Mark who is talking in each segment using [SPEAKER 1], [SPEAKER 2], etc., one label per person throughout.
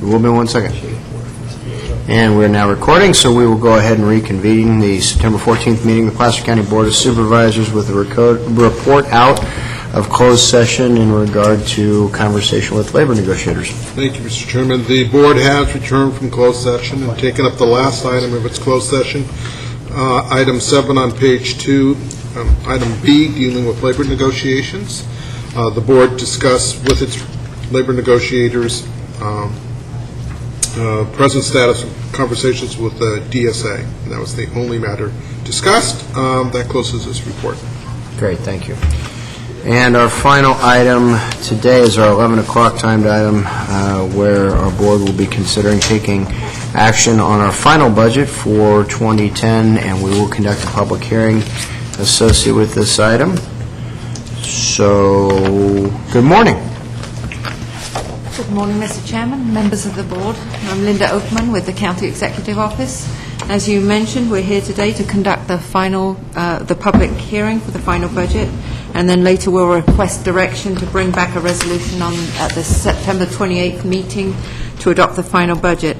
[SPEAKER 1] We'll be one second. And we're now recording, so we will go ahead and reconvene the September 14th meeting of the Placer County Board of Supervisors with a reco- report out of closed session in regard to conversation with labor negotiators.
[SPEAKER 2] Thank you, Mr. Chairman. The board has returned from closed session and taken up the last item of its closed session, uh, item seven on page two, um, item B, dealing with labor negotiations. Uh, The board discussed with its labor negotiators um, uh, present status of conversations with the DSA. And That was the only matter discussed. Um, That closes this report.
[SPEAKER 1] Great, thank you. And our final item today is our 11 o'clock timed item, uh, where our board will be considering taking action on our final budget for 2010, and we will conduct a public hearing associated with this item. So, good morning.
[SPEAKER 3] Good morning, Mr. Chairman, members of the board. I'm Linda Oakman with the County Executive Office. As you mentioned, we're here today to conduct the final, uh, the public hearing for the final budget, and then later we'll request direction to bring back a resolution on, at the September 28th meeting to adopt the final budget.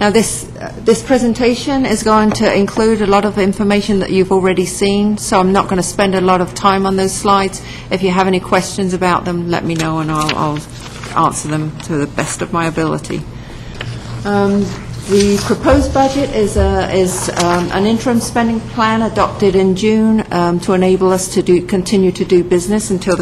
[SPEAKER 3] Now, this, uh, this presentation is going to include a lot of information that you've already seen, so I'm not going to spend a lot of time on those slides. If you have any questions about them, let me know, and I'll, I'll answer them to the best of my ability. Um, The proposed budget is a- is um, an interim spending plan adopted in June um, to enable us to do, continue to do business until the